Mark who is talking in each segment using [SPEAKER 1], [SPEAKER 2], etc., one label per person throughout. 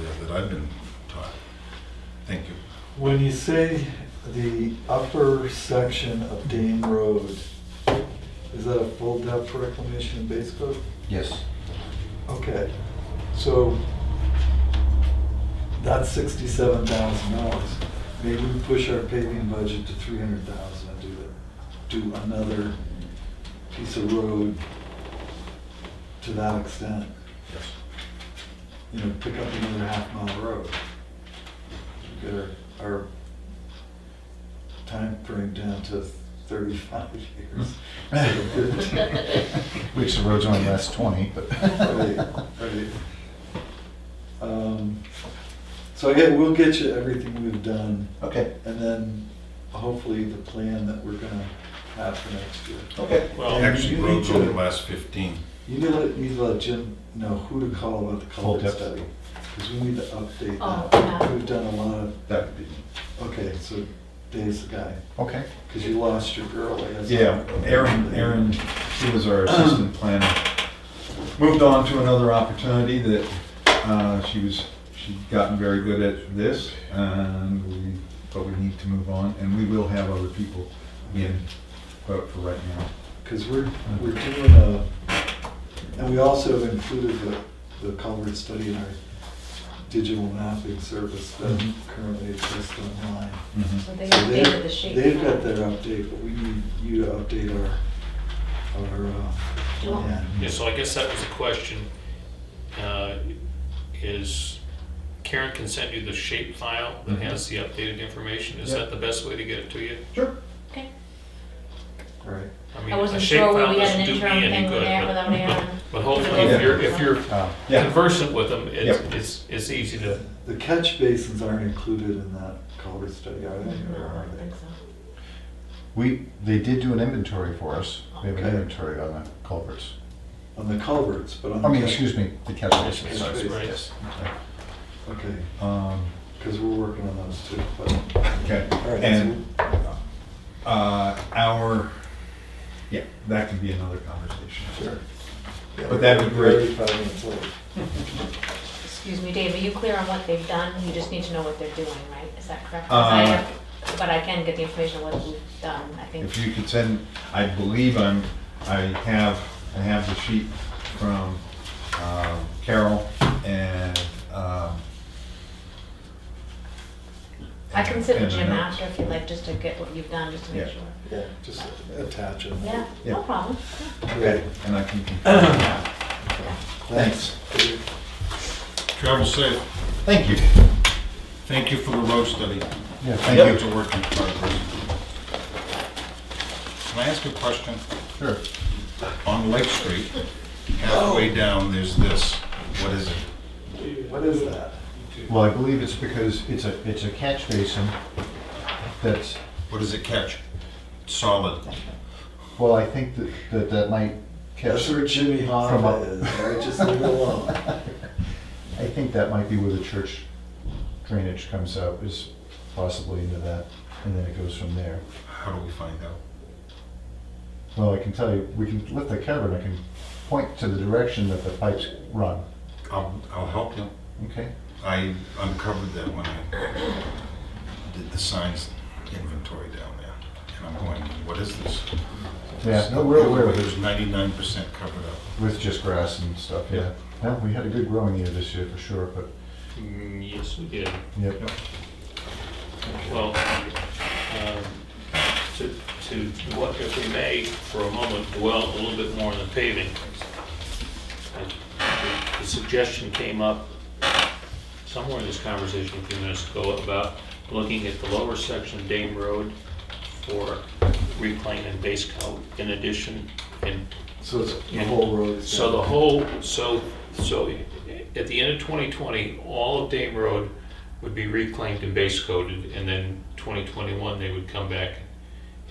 [SPEAKER 1] that I've been taught. Thank you.
[SPEAKER 2] When you say the upper section of Dame Road, is that a full depth reclamation and base coat?
[SPEAKER 3] Yes.
[SPEAKER 2] Okay, so that's sixty-seven thousand dollars. Maybe we push our paving budget to three hundred thousand and do it, do another piece of road to that extent.
[SPEAKER 1] Yes.
[SPEAKER 2] You know, pick up another half mile road. Get our, our time frame down to thirty-five years.
[SPEAKER 3] Which the road's only last 20, but.
[SPEAKER 2] Right, right. Um, So yeah, we'll get you everything we've done,
[SPEAKER 3] Okay,
[SPEAKER 2] and then hopefully the plan that we're gonna have for next year.
[SPEAKER 3] okay.
[SPEAKER 1] Well, Actually, roads over the last 15.
[SPEAKER 2] You need to let, need to let Jim know who to call about the
[SPEAKER 3] Full
[SPEAKER 2] culvert
[SPEAKER 3] depth.
[SPEAKER 2] study, because we need to update
[SPEAKER 4] Oh,
[SPEAKER 2] that.
[SPEAKER 4] yeah.
[SPEAKER 2] We've done a lot of,
[SPEAKER 3] That would be,
[SPEAKER 2] okay, so Dave's the guy,
[SPEAKER 3] okay.
[SPEAKER 2] because you lost your girl, I guess.
[SPEAKER 3] Yeah, Aaron, Aaron, she was our assistant planner. Moved on to another opportunity that uh, she was, she'd gotten very good at this, and we, but we need to move on, and we will have other people in, but for right now.
[SPEAKER 2] Because we're,
[SPEAKER 3] Uh-huh.
[SPEAKER 2] we're doing a, and we also have included the, the culvert study in our digital mapping service that
[SPEAKER 3] Mhm.
[SPEAKER 2] currently exists online.
[SPEAKER 4] So
[SPEAKER 3] Mhm.
[SPEAKER 4] they
[SPEAKER 2] So they've-
[SPEAKER 4] updated the shape.
[SPEAKER 2] They've got their uh, update, but we need you to update our, our, uh,
[SPEAKER 4] Do you want-
[SPEAKER 2] plan.
[SPEAKER 5] Yeah, so I guess that was the question. uh, Is Karen can send you the shape file that has the updated information? Is
[SPEAKER 3] Mm-hmm. Yeah.
[SPEAKER 5] that the best way to get it to you?
[SPEAKER 3] Sure.
[SPEAKER 4] Okay.
[SPEAKER 2] Right.
[SPEAKER 5] I mean,
[SPEAKER 4] I
[SPEAKER 5] a
[SPEAKER 4] wasn't
[SPEAKER 5] shape
[SPEAKER 4] sure
[SPEAKER 5] file
[SPEAKER 4] whether we had
[SPEAKER 5] doesn't
[SPEAKER 4] an
[SPEAKER 5] do me
[SPEAKER 4] interim
[SPEAKER 5] any
[SPEAKER 4] thing
[SPEAKER 5] good,
[SPEAKER 4] with that
[SPEAKER 5] but-
[SPEAKER 4] without Aaron.
[SPEAKER 5] But hopefully, if you're, if you're
[SPEAKER 3] Uh, Yeah,
[SPEAKER 5] conversant with them, it's,
[SPEAKER 3] Yeah.
[SPEAKER 5] it's, it's easy to,
[SPEAKER 2] The the catch basins aren't included in that culvert study, are they? Or
[SPEAKER 4] No, I
[SPEAKER 2] are
[SPEAKER 4] don't
[SPEAKER 2] they?
[SPEAKER 4] think so.
[SPEAKER 3] we, they did do an inventory for us. We have an
[SPEAKER 2] Okay.
[SPEAKER 3] inventory on the culverts.
[SPEAKER 2] On the culverts, but on.
[SPEAKER 3] I mean,
[SPEAKER 2] the-
[SPEAKER 3] excuse me, the catch basins.
[SPEAKER 2] Catch basins,
[SPEAKER 5] right.
[SPEAKER 3] Yes.
[SPEAKER 2] Okay,
[SPEAKER 3] Um,
[SPEAKER 2] because we're working on those too, but.
[SPEAKER 3] Okay,
[SPEAKER 2] All right,
[SPEAKER 3] and uh, our, yeah, that can be another conversation.
[SPEAKER 2] Sure.
[SPEAKER 3] But that'd be great.
[SPEAKER 2] Thirty-five minutes old.
[SPEAKER 4] Excuse me, Dave, are you clear on what they've done? You just need to know what they're doing, right? Is that correct? 'Cause I
[SPEAKER 3] Uh,
[SPEAKER 4] have- But I can get the information on what we've done, I think.
[SPEAKER 3] If you could send, I believe I'm, I have, I have the sheet from um, Carol and. um,
[SPEAKER 4] I can sit
[SPEAKER 3] and
[SPEAKER 4] with
[SPEAKER 3] the
[SPEAKER 4] Jim
[SPEAKER 3] notes.
[SPEAKER 4] after if you'd like, just to get what you've done, just to make
[SPEAKER 3] Yeah.
[SPEAKER 4] sure.
[SPEAKER 2] Yeah, just attach them.
[SPEAKER 4] Yeah,
[SPEAKER 3] Yeah.
[SPEAKER 4] no problem.
[SPEAKER 2] Okay,
[SPEAKER 3] And I can, confirm.
[SPEAKER 2] thanks.
[SPEAKER 1] Travel safe.
[SPEAKER 3] thank you.
[SPEAKER 1] Thank you for the road study.
[SPEAKER 3] Yeah,
[SPEAKER 1] It's
[SPEAKER 3] thank you.
[SPEAKER 1] a work in progress. Can I ask a question?
[SPEAKER 3] Sure.
[SPEAKER 1] On Lake Street, halfway
[SPEAKER 3] Oh.
[SPEAKER 1] down, there's this. What is it?
[SPEAKER 2] What is that?
[SPEAKER 3] Well, I believe it's because it's a, it's a catch basin that's
[SPEAKER 1] What does it catch? Solid.
[SPEAKER 3] Well, I think that, that that might
[SPEAKER 2] That's
[SPEAKER 3] catch,
[SPEAKER 2] where Jimmy
[SPEAKER 3] From
[SPEAKER 2] Hoffa
[SPEAKER 3] up.
[SPEAKER 2] is, all right, just leave it alone.
[SPEAKER 3] I think that might be where the church drainage comes out, is possibly into that, and then it goes from there.
[SPEAKER 1] How do we find out?
[SPEAKER 3] Well, I can tell you, we can lift the cover and I can point to the direction that the pipes run,
[SPEAKER 1] I'll, I'll help you.
[SPEAKER 3] okay?
[SPEAKER 1] I uncovered that when I did the signs inventory down there. And I'm going, what is this?
[SPEAKER 3] Yeah, no, we're aware of
[SPEAKER 1] It
[SPEAKER 3] it,
[SPEAKER 1] was 99% covered up.
[SPEAKER 3] with just grass and stuff, yeah. Well, we had a good growing year this year for sure, but,
[SPEAKER 5] Mm, yes, we did.
[SPEAKER 3] yep.
[SPEAKER 5] Well, um, to, to what, if we may, for a moment, dwell a little bit more on the paving. And The the suggestion came up somewhere in this conversation a few minutes ago about looking at the lower section of Dame Road for reclaim and base coat in addition, and
[SPEAKER 2] So it's the whole road. is
[SPEAKER 5] so the
[SPEAKER 2] down.
[SPEAKER 5] whole, so, so at the end of 2020, all of Dame Road would be reclaimed and base coated, and then 2021, they would come back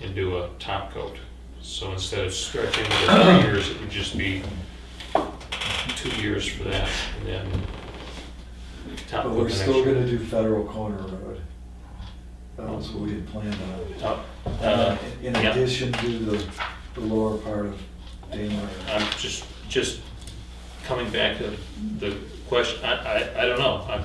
[SPEAKER 5] and do a top coat. So instead of stretching it for three years, it would just be two years for that, and then top
[SPEAKER 2] But
[SPEAKER 5] coat
[SPEAKER 2] we're
[SPEAKER 5] the
[SPEAKER 2] still
[SPEAKER 5] next year.
[SPEAKER 2] gonna do Federal Corner Road. That was what we had planned on.
[SPEAKER 5] Top, uh,
[SPEAKER 2] In
[SPEAKER 5] yeah.
[SPEAKER 2] addition to the, the lower part of Dana.
[SPEAKER 5] I'm just, just coming back to the question, I, I, I don't know, I'm